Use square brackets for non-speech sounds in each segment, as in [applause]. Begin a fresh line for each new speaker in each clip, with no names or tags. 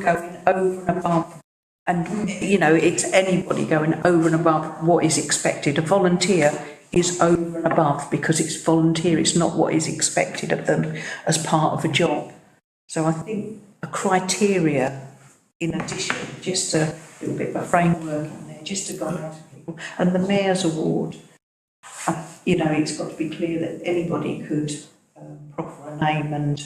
going over and above, and, you know, it's anybody going over and above what is expected. A volunteer is over and above because it's volunteer, it's not what is expected of them as part of a job. So I think a criteria in addition, just a little bit of a framework in there, just to guide people. And the mayor's award, uh, you know, it's got to be clear that anybody could um, proffer a name and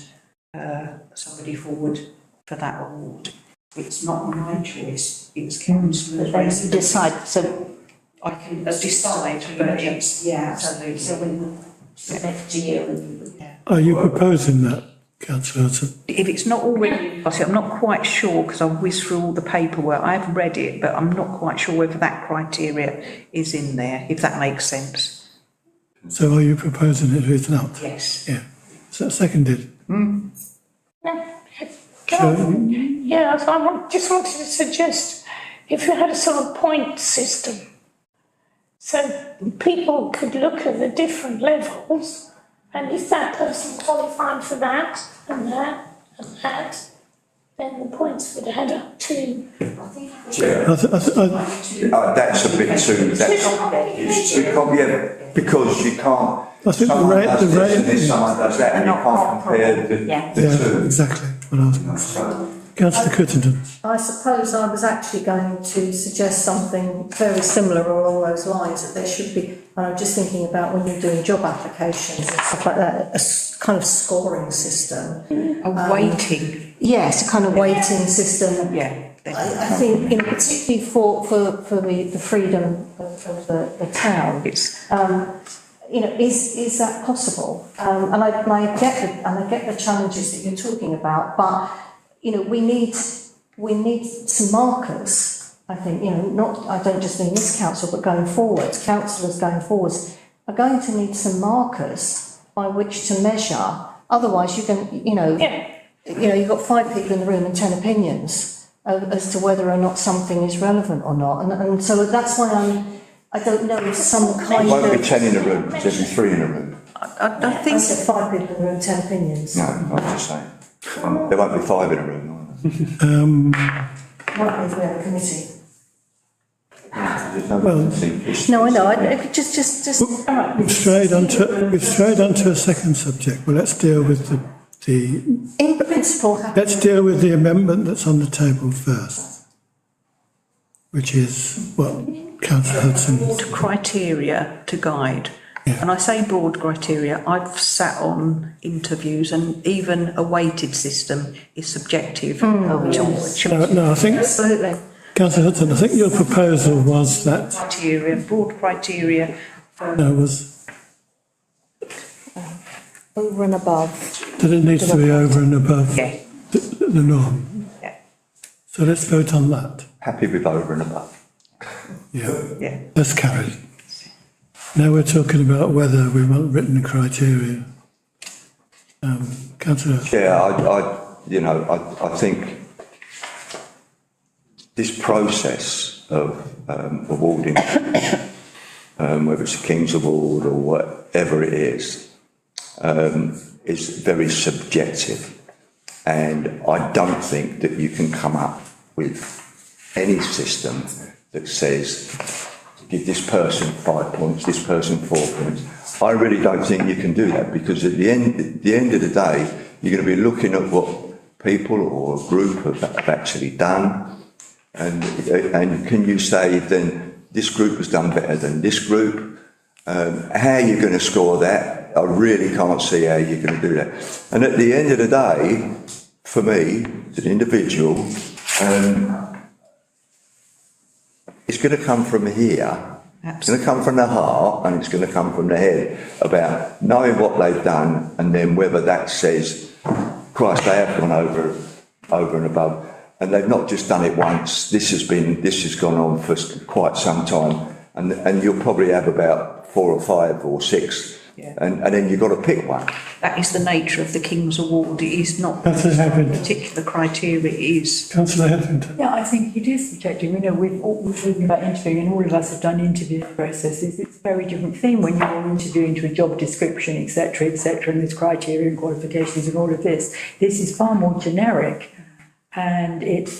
uh, somebody forward for that award. It's not my choice, it's councillors.
They decide, so
I can decide, but it's, yeah, absolutely.
so when submit to you and you
Are you proposing that, councillor Hudson?
if it's not already, I see, I'm not quite sure, because I whizzed through all the paperwork, I've read it, but I'm not quite sure whether that criteria is in there, if that makes sense.
So are you proposing it or it's not?
Yes.
Yeah, so seconded.
Can I, yeah, I want, just wanted to suggest, if you had a sort of point system, so people could look at the different levels, and if that person qualified for that, and that, and that, then the points would add up to.
I th- I th- I-
Uh, that's a bit too, that's, it's too, com- yeah, because you can't.
I think the
someone
rate-
does
the
this
rate
and then
is-
Someone does that, and you can't compare the,
Yeah.
Yeah,
the
exactly. what I was-
two. So,
Councillor Crittenden,
I suppose I was actually going to suggest something very similar or along those lines, that there should be, and I'm just thinking about when you're doing job applications and stuff like that, a s- kind of scoring system.
A waiting,
Yes, a kind of weighting system.
yeah.
I, I think, you know, particularly for, for, for the, the freedom of, of the, the town,
It's,
you know, is, is that possible? Um, and I, and I get the, and I get the challenges that you're talking about, but, you know, we need, we need some markers, I think, you know, not, I don't just mean this council, but going forwards, councillors going forwards are going to need some markers by which to measure, otherwise you can, you know,
Yeah.
you know, you've got five people in the room and ten opinions uh, as to whether or not something is relevant or not, and, and so that's why I'm, I don't know if some kind of.
won't be ten in a room, there'll be three in a room.
I, I
I
think,
said five people in the room, ten opinions.
No, I'm just saying. There won't be five in a room, either.
Might be if we have a committee.
There's no vacancy.
No, I know, I, I could just, just, just.
we've strayed onto, we've strayed onto a second subject. Well, let's deal with the, the,
In principle, happy.
let's deal with the amendment that's on the table first, which is what councillor Hudson,
broad criteria to guide. And I say broad criteria, I've sat on interviews and even a weighted system is subjective.
no,
to-
no, I think,
absolutely.
councillor Hudson, I think your proposal was that,
Criteria, broad criteria,
no, was
Over and above.
that it needs to be over and above
yeah,
the, the norm.
yeah,
So let's vote on that.
Happy with over and above.
Yeah.
yeah.
That's carried. Now we're talking about whether we want written criteria. Um, councillor,
Yeah, I, I, you know, I, I think this process of um, awarding, [coughs] um, whether it's a King's Award or whatever it is, um, is very subjective. And I don't think that you can come up with any system that says, give this person five points, this person four points. I really don't think you can do that because at the end, at the end of the day, you're going to be looking at what people or a group have, have actually done. And, and can you say then this group has done better than this group? Um, how you're going to score that, I really can't see how you're going to do that. And at the end of the day, for me, as an individual, um, it's going to come from here. It's going to come from the heart and it's going to come from the head about knowing what they've done and then whether that says, Christ, they have gone over, over and above. And they've not just done it once. This has been, this has gone on for s- quite some time. And, and you'll probably have about four or five or six.
Yeah.
And, and then you've got to pick one.
That is the nature of the King's Award, it is not
Councillor Hammond.
particular criteria, it is.
councillor Hetherington.
Yeah, I think it is subjective. You know, we've all, we're talking about interviewing and all of us have done interview processes. It's a very different thing when you're interviewing to a job description, et cetera, et cetera, and there's criteria and qualifications and all of this. This is far more generic. And it's